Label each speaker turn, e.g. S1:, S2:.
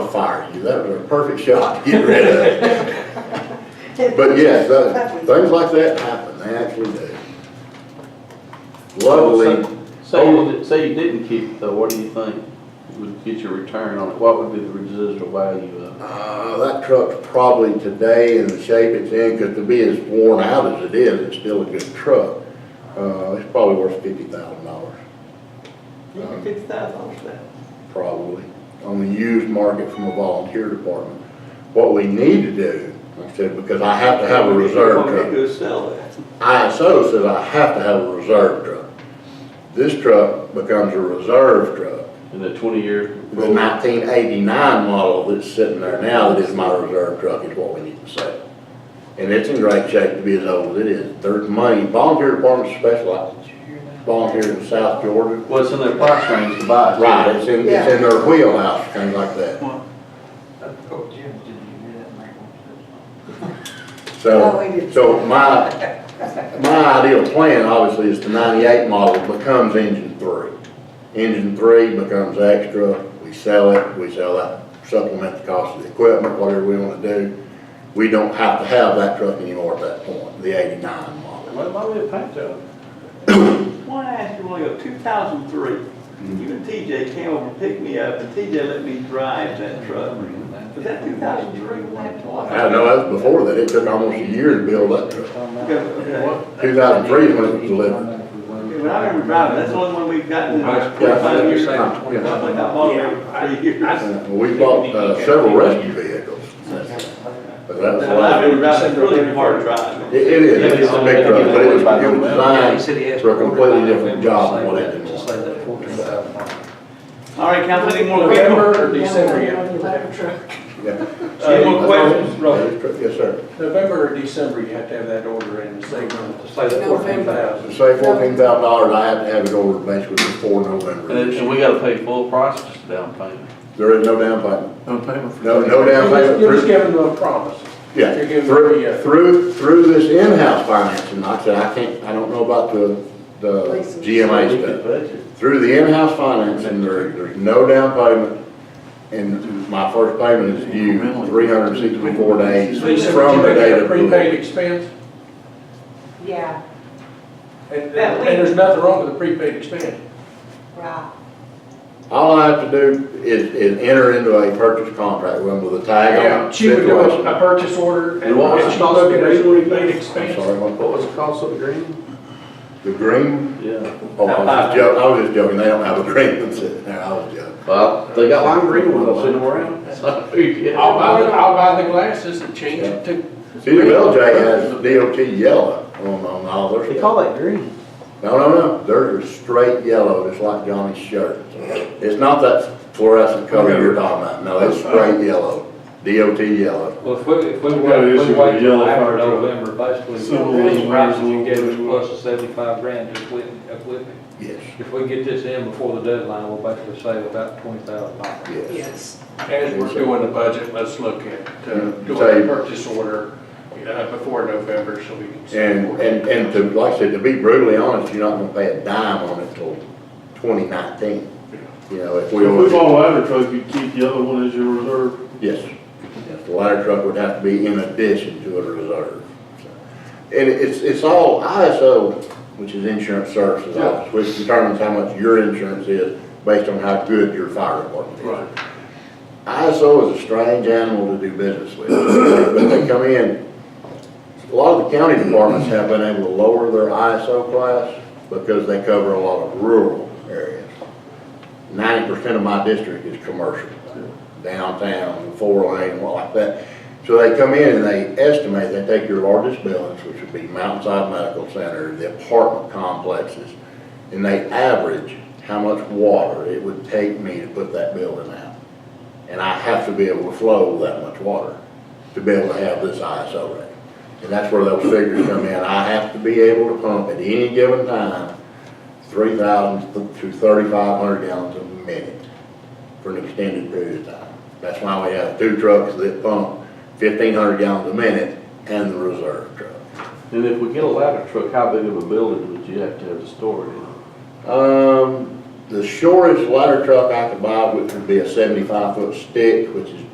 S1: that was a perfect shot to get rid of it. But yes, that- things like that happen, they actually do. Luckily,
S2: Say, you did- say you didn't keep it though, what do you think would get your return on it? What would be the residual value of it?
S1: Uh, that truck's probably today in the shape it's in, because to be as worn out as it is, it's still a good truck. Uh, it's probably worth fifty thousand dollars,
S3: You can fix that, I'll do that.
S1: probably, on the used market from the volunteer department. What we need to do, I said, because I have to have a reserve
S3: You
S1: truck.
S3: want me to go sell that?
S1: ISO says I have to have a reserve truck. This truck becomes a reserve truck.
S2: In the twenty year?
S1: The nineteen eighty-nine model that's sitting there now that is my reserve truck is what we need to sell. And it's in great shape to be as old as it is. There's money, volunteer department specializes, volunteer in South Georgia.
S2: Well, it's in their price range to buy. too.
S1: Right, it's in, it's in their wheelhouse, things like that.
S4: Oh, Jim, did you hear that, Michael?
S1: So,
S5: No, we didn't.
S1: so my, my ideal plan obviously is the ninety-eight model becomes engine three. Engine three becomes extra, we sell it, we sell that, supplement the cost of the equipment, whatever we wanna do. We don't have to have that truck anymore at that point, the eighty-nine model.
S6: Well, it might be a paint job.
S3: Why I asked you want to go, two thousand three, you and TJ came over and picked me up, and TJ let me drive that truck. Was that two thousand three?
S1: I know that was before that, it took almost a year to build that truck. Two thousand three is when it was delivered.
S3: When I remember driving, that's the only one we've gotten in
S4: Yeah.
S3: the twenty-five years. I
S1: Yeah.
S3: think I bought it every three years.
S1: Uh, We bought uh, several rescue vehicles, but that was the
S3: Well,
S1: last.
S3: I remember driving, it's really hard driving.
S1: It it is, it's a big truck, but it was, it was
S4: Yeah, he said he
S1: designed
S4: asked
S1: for a completely different job than
S4: Just
S1: what
S4: like
S1: it
S4: that-
S1: did.
S4: Just like that fourteen thousand
S3: All right, council, any more questions?
S6: November or December, you-
S1: Yeah.
S3: Uh,
S6: any more questions, Robert?
S1: Yes, sir.
S6: November or December, you have to have that order in, say, say the fourteen
S1: To
S6: thousand.
S1: say fourteen thousand dollars, I have to have it over basically before November.
S2: And then, and we gotta pay full price just down payment.
S1: There is no down payment.
S2: No payment.
S1: No, no down payment.
S6: You're just giving them a promise.
S1: Yeah,
S6: You're giving them
S1: through,
S6: a,
S1: through, through this in-house financing, I said, I can't, I don't know about the, the
S5: Leases.
S1: GMA stuff. Through the in-house financing, there, there's no down payment, and my first payment is due three hundred and sixty-four days
S6: so you said
S1: from
S6: you
S1: the
S6: make
S1: date
S6: that a
S1: of delivery.
S6: prepaid expense,
S5: Yeah,
S6: and, and there's nothing wrong with a prepaid expense.
S5: right.
S1: All I have to do is, is enter into a purchase contract with them with a tag
S6: Yeah,
S1: on.
S6: She would do
S1: situation.
S6: a a purchase order, and
S2: And what was
S6: and
S2: the
S6: she'd
S2: cost of
S6: look at
S2: the
S6: a prepaid
S1: I'm
S6: expense.
S1: sorry, what-
S2: was the cost of the green?
S1: the green,
S2: Yeah.
S1: oh, I was just joking, I was just joking, they don't have a green one sitting there, I was joking.
S2: Well, they got lime green ones, I've seen them around. So,
S6: I'll
S2: yeah.
S6: buy, the- I'll buy the glasses and change it to
S1: CDLJ has DOT yellow on, on all their stuff.
S2: that green.
S1: No, no, no, theirs is straight yellow, just like Johnny's shirt. It's not that fluorescent color you're talking about, no, it's straight yellow, DOT yellow.
S7: Well, if we, if we
S8: We've
S7: wait,
S8: got an
S7: if
S8: issue
S7: we
S8: with
S7: wait
S8: the yellow
S7: till after
S8: fire truck.
S7: November, basically,
S8: Civil
S7: the price you
S8: engineers
S7: get is
S8: will-
S7: plus the seventy-five grand to equipment, equipment.
S1: Yes,
S7: If we get this in before the deadline, we'll basically save about twenty thousand dollars.
S1: yes.
S5: Yes.
S6: As we're doing the budget, let's look at uh, doing a
S1: Say-
S6: purchase order uh, before November so we can.
S1: And, and, and to, like I said, to be brutally honest, you're not gonna pay a dime on it till twenty nineteen. You know, if we
S8: If we
S1: order,
S8: bought a ladder truck, you'd keep the other one as your reserve.
S1: yes, Yes, the ladder truck would have to be in addition to a reserve. so. And it's, it's all ISO, which is insurance services office, which determines how much your insurance is based on how good your fire department is.
S6: Right.
S1: ISO is a strange animal to do business with, but they come in, a lot of the county departments have been able to lower their ISO class because they cover a lot of rural areas. Ninety percent of my district is commercial, downtown, four lane, what like that. So they come in and they estimate, they take your largest buildings, which would be Mountainside Medical Center, the apartment complexes, and they average how much water it would take me to put that building out and I have to be able to flow that much water to be able to have this ISO rating. And that's where those figures come in. I have to be able to pump at any given time, three thousand to thirty-five hundred gallons a minute for an extended period of time. That's why we have two trucks that pump fifteen hundred gallons a minute and the reserve truck.
S2: And if we get a ladder truck, how big of a building would you have to have to store it in?
S1: Um, the shortest ladder truck I could buy, which would be a seventy-five foot stick, which is